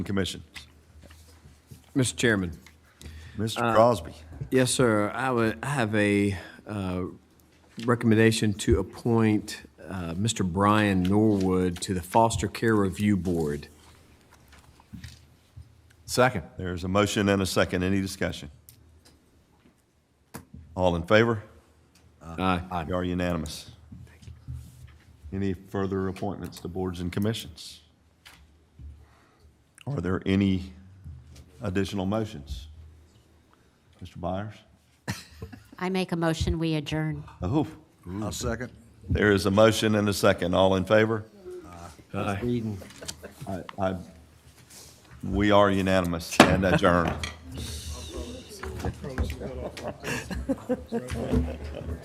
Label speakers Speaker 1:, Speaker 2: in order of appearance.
Speaker 1: Commission.
Speaker 2: Mr. Chairman.
Speaker 1: Mr. Crosby.
Speaker 2: Yes, sir. I would, I have a uh, recommendation to appoint uh, Mr. Brian Norwood to the Foster Care Review Board.
Speaker 3: Second.
Speaker 1: There's a motion and a second. Any discussion? All in favor?
Speaker 2: Aye.
Speaker 1: You are unanimous. Any further appointments to boards and commissions? Are there any additional motions? Mr. Byers?
Speaker 4: I make a motion, we adjourn.
Speaker 1: Oh,
Speaker 5: I'll second.
Speaker 1: there is a motion and a second. All in favor? I- I- We are unanimous and adjourned.